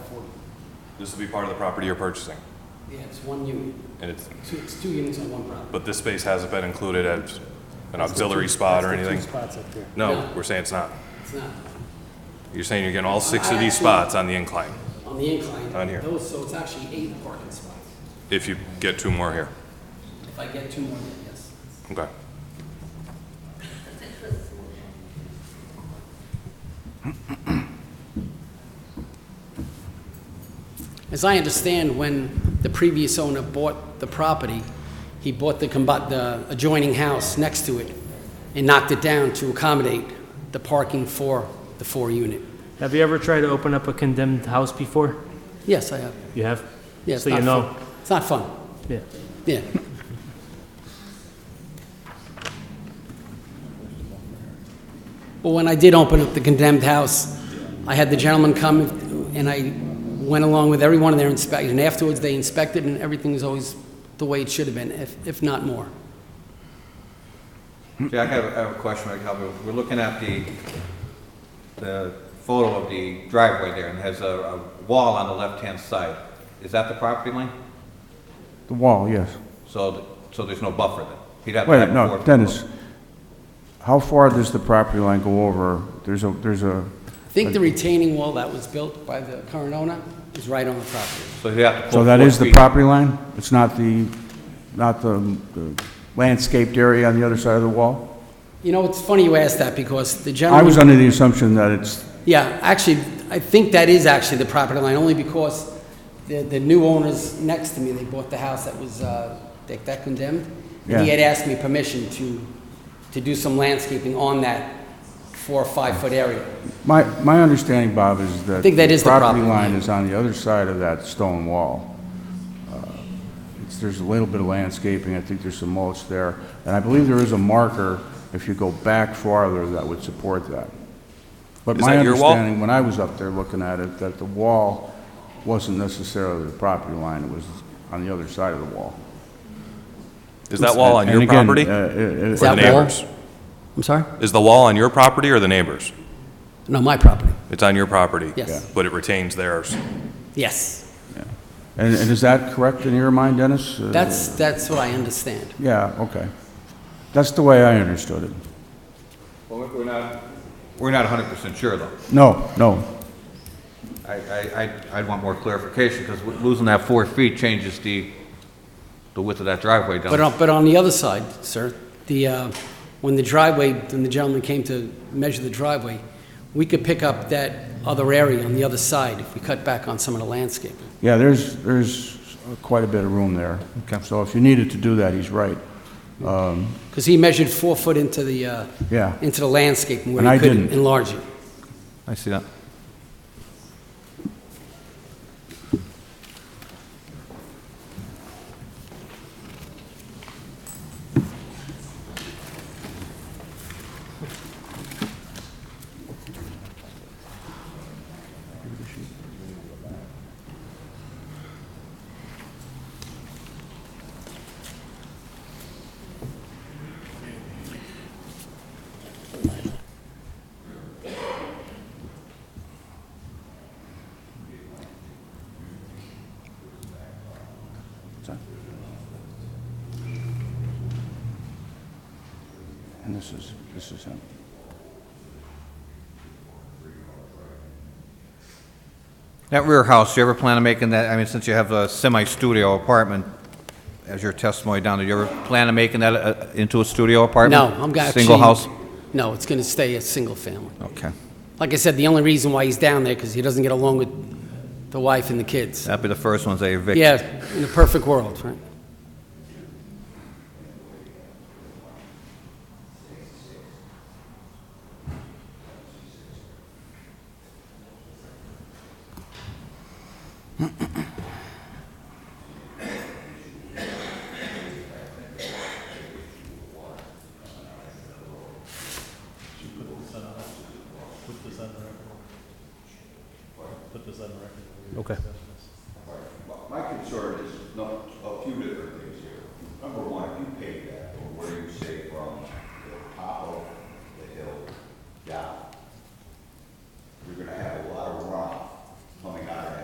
This will be part of the property you're purchasing, Yeah, it's one unit, and it's, two, it's two units on one property. but this space hasn't been included as an That's the auxiliary two- spot or that's the anything? two spots up there. No, No. we're saying it's not. It's not You're saying you're getting all six I of these actually- spots on the incline, on the incline. On here. Those, so it's actually eight parking spots. if you get two more here. If I get two more, then yes. Okay. As I understand, when the previous owner bought the property, he bought the combi- the adjoining house next to it and knocked it down to accommodate the parking for the four-unit. Have you ever tried to open up a condemned house before? Yes, I have. You have? Yeah, it's So you not know. fun. It's not fun, Yeah. yeah. But when I did open up the condemned house, I had the gentleman come and I went along with every one of their inspections. And afterwards, they inspected and everything was always the way it should have been, if, if not more. Jack, I have, I have a question, I can help you. We're looking at the, the photo of the driveway there, and it has a, a wall on the left-hand side. Is that the property line? The wall, yes. So, th- so there's no buffer then? He'd have to Wait, have no, four- Dennis, how far does the property line go over? There's a, there's a, I think the retaining wall that was built by the current owner is right on the property. So he'd have to pull so that four is the feet. property line? It's not the, not the the landscaped area on the other side of the wall? You know, it's funny you ask that because the I gentleman. was under the assumption that it's, Yeah, actually, I think that is actually the property line, only because the, the new owners next to me, they bought the house that was, uh, that that condemned. And he Yeah. had asked me permission to, to do some landscaping on that four or five foot area. my, my understanding, Bob, is that. I think that is the property Property line line. is on the other side of that stone wall. Uh, it's- There's a little bit of landscaping, I think there's some mulch there, and I believe there is a marker, if you go back farther, that would support that. But Is my that your wall? understanding, when I was up there looking at it, that the wall wasn't necessarily the property line, it was on the other side of the wall. Is that wall on And your again, property uh, or it- that the it- wall? neighbors? I'm sorry? Is the wall on your property or the neighbors? No, my property, It's on your property? Yes. Yeah. But it retains theirs? yes. And and is that correct in your mind, Dennis? Uh, That's, that's what I understand. Yeah, okay. That's the way I understood it. Well, we're- we're not, we're not hundred percent sure though. No, no. I, I, I'd- I'd want more clarification, because losing that four feet changes the, the width of that driveway down. But um, on, but on the other side, sir, the, uh, when the driveway, when the gentleman came to measure the driveway, we could pick up that other area on the other side if we cut back on some of the landscaping. Yeah, there's, there's quite a bit of room there. Okay. So if you needed to do that, he's right. Because he measured four foot into the, uh, Yeah. into the landscape where he And I couldn't didn't. enlarge it. I see that. And this is, this is him. That rear house, you ever plan on making that, I mean, since you have a semi-studio apartment as your testimony down there, you ever plan on making that uh, into a studio No, apartment? I'm gonna. Single house? actually- No, it's gonna stay a single family. Okay. Like I said, the only reason why he's down there, because he doesn't get along with the wife and the kids. That'd be the first ones they evict. Yeah, in a perfect world, right? Okay. My concern is not a few different things here. Number one, if you pay that, or where you say from the top of